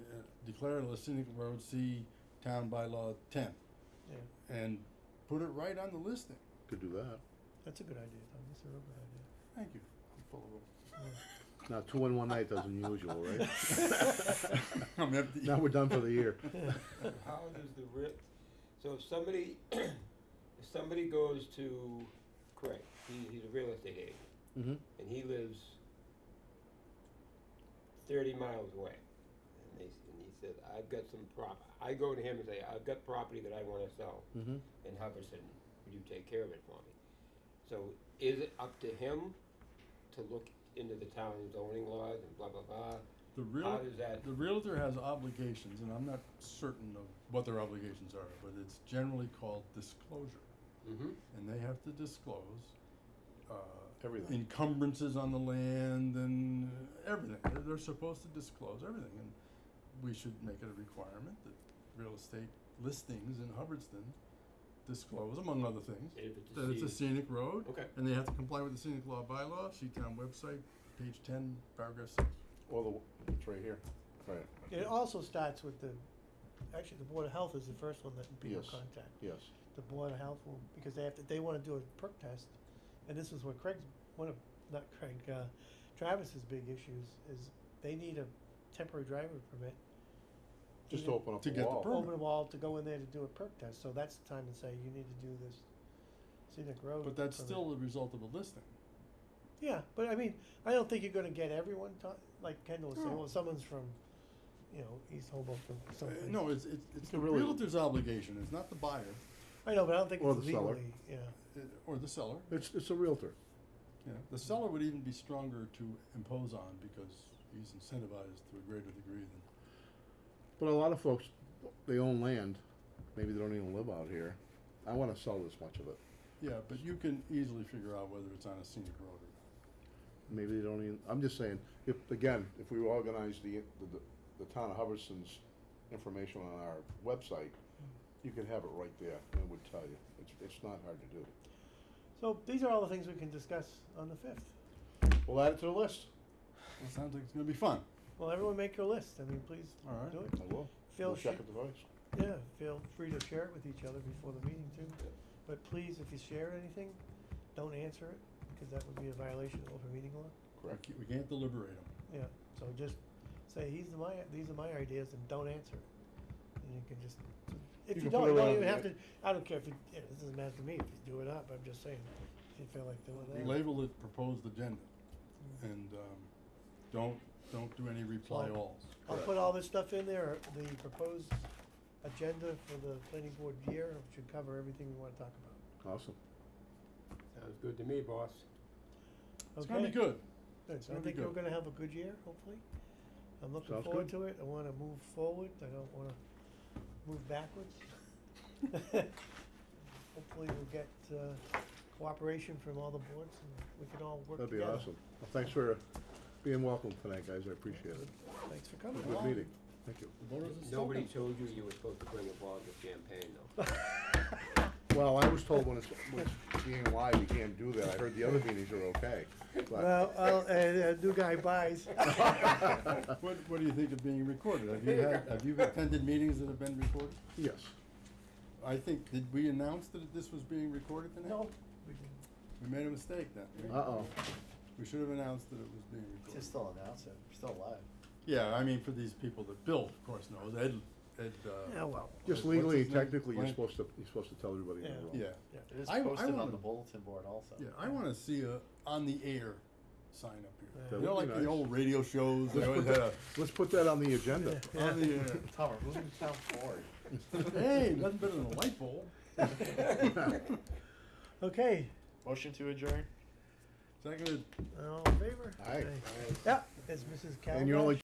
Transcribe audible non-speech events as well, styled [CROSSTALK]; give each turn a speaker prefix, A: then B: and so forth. A: declare the scenic road C town bylaw ten.
B: Yeah.
A: And put it right on the listing.
C: Could do that.
B: That's a good idea, Tom, that's a real good idea.
A: Thank you. I'm full of
C: Now, two in one night does unusual, right? [LAUGHS]
A: them. [LAUGHS] I'm empty.
C: Now we're done for the year.
A: [LAUGHS]
D: How does the writ, so if somebody, [CLEARS THROAT] if somebody goes to Craig, he, he's a real estate agent,
C: Mm-hmm.
D: and he lives thirty miles away, and they, s- and he says, I've got some prop, I go to him and say, I've got property that I wanna sell
C: Mm-hmm.
D: in Hubbardson, would you take care of it for me? So is it up to him to look into the town zoning laws and blah, blah, blah?
A: The real,
D: How does that-
A: the realtor has obligations, and I'm not certain of what their obligations are, but it's generally called disclosure.
D: Mm-hmm.
A: And they have to disclose, uh,
C: Everything.
A: encumbrances on the land and everything. They're, they're supposed to disclose everything, and we should make it a requirement that real estate listings in Hubbardston disclose, among other things,
D: If it's
A: that it's a
D: deed.
A: scenic road,
D: Okay,
A: and they have to comply with the scenic law bylaw, Seatown website, page ten, paragraph six.
C: All the, it's right here. Right,
B: [LAUGHS] It also starts with the, actually, the Board of Health is the first one that people
C: Yes.
B: contact.
C: yes.
B: The Board of Health will, because they have to, they wanna do a perk test, and this is what Craig's, one of, not Craig, uh, Travis's big issues is they need a temporary driver permit.
C: Just to
B: even-
C: open up
A: To
C: the
A: get the
C: wall.
A: permit.
B: Open a wall to go in there to do a perk test, so that's the time to say, you need to do this scenic road.
A: But that's
B: permit."
A: still the result of a listing.
B: Yeah, but I mean, I don't think you're gonna get everyone ta- like Kendall was saying,
A: No.
B: well, someone's from, you know, East Hoboken, or
A: Uh,
B: something.
A: No, it's, it's, it's the
C: could really-
A: realtor's obligation, it's not the buyer,
B: I know, but I don't think
C: Or
B: it's
C: the seller.
B: legally, yeah.
A: uh, or the seller,
C: It's, it's a realtor.
A: you know. The seller would even be stronger to impose on because he's incentivized to a greater degree than
C: But a lot of folks, they own land. Maybe they don't even live out here. I want to sell this much of it.
A: Yeah, but you can easily figure out whether it's on a scenic road or not.
C: Maybe they don't even, I'm just saying, if, again, if we organize the, the, the town of Hubbardston's information on our website, you could have it right there, and it would tell you. It's, it's not hard to do.
B: So these are all the things we can discuss on the fifth.
C: We'll add it to the list.
A: It sounds like it's gonna be fun.
B: Well, everyone make your list, I mean, please
A: All right.
B: do it.
C: I will.
B: Feel
C: We'll check
B: sh-
C: it device.
B: Yeah, feel free to share it with each other before the meeting too, but please, if you share anything, don't answer it, because that would be a violation of open meeting law.
A: We
C: Correct.
A: ca- We can't deliberate them.
B: Yeah, so just say, these are my, these are my ideas and don't answer it. And you can just, if
C: You
B: you
C: can put
B: don't,
C: it
B: you
C: on
B: don't even
C: the
B: have to,
C: end.
B: I don't care if you, yeah, this doesn't matter to me if you do it up, I'm just saying, if you feel like doing that.
A: Label it proposed agenda and, um, don't, don't do any reply
B: So-
A: alls.
B: I'll put all this stuff in there, the proposed agenda for the planning board year, which should cover everything we wanna talk about.
C: Awesome.
D: sounds good to me, boss.
A: It's gonna be
B: Okay?
A: good.
B: Good, so I
A: gonna be
B: think we're
A: good.
B: gonna have a good year, hopefully. I'm looking
C: Sounds
B: forward
C: good.
B: to it, I wanna move forward, I don't wanna move
C: [LAUGHS]
B: backwards. Hopefully we'll get, uh, cooperation from all the boards and we can all work
C: That'd be
B: together.
C: awesome. Well, thanks for being welcome tonight, guys. I appreciate it.
B: Thanks for
C: It
B: coming.
C: was a good
A: Well-
C: meeting. Thank you.
A: The voters are still
D: Nobody
A: gonna-
D: told you you were supposed to bring a bottle of champagne, though.
C: Well, I was told when it's, when it's being live, you can't do that. I heard the other meetings are okay. but-
B: Well, I'll, uh, uh, new guy buys. [LAUGHS]
A: What, what do you think of being recorded? Have you had, have you attended meetings that have been recorded?
C: [LAUGHS] Yes.
A: I think, did we announce that this was being recorded tonight?
B: No, we can
A: We made a mistake then. We-
C: Uh-oh.
A: We should have announced that it was being recorded.
E: Just still announce it, we're still alive.
A: Yeah, I mean, for these people that Bill, of course, knows, Ed, Ed,
B: oh,
A: uh,
B: well,
C: Just
A: What's
C: legally,
A: his name?
C: technically, you're
A: Blank.
C: supposed to, you're supposed to tell everybody. in the
B: Yeah.
C: room.
A: yeah,
B: yeah.
E: It is
A: I- I
E: posted on
A: wanna-
E: the bulletin board also.
A: yeah, I wanna see a on the air sign up here.
B: That
A: You know,
C: would
A: like
C: be
A: the
C: nice.
A: old radio shows, they always had a,
C: Let's put that on the agenda.
A: on the air.
E: Tom, we're moving to town forward.
A: Hey, nothing better than a light bulb.
C: [LAUGHS]
B: Okay,
E: Motion to adjourn?
A: Seconded.
B: all in favor?
C: Aye.
B: Okay. Yeah, it's Mrs. Calabash.
C: And you're only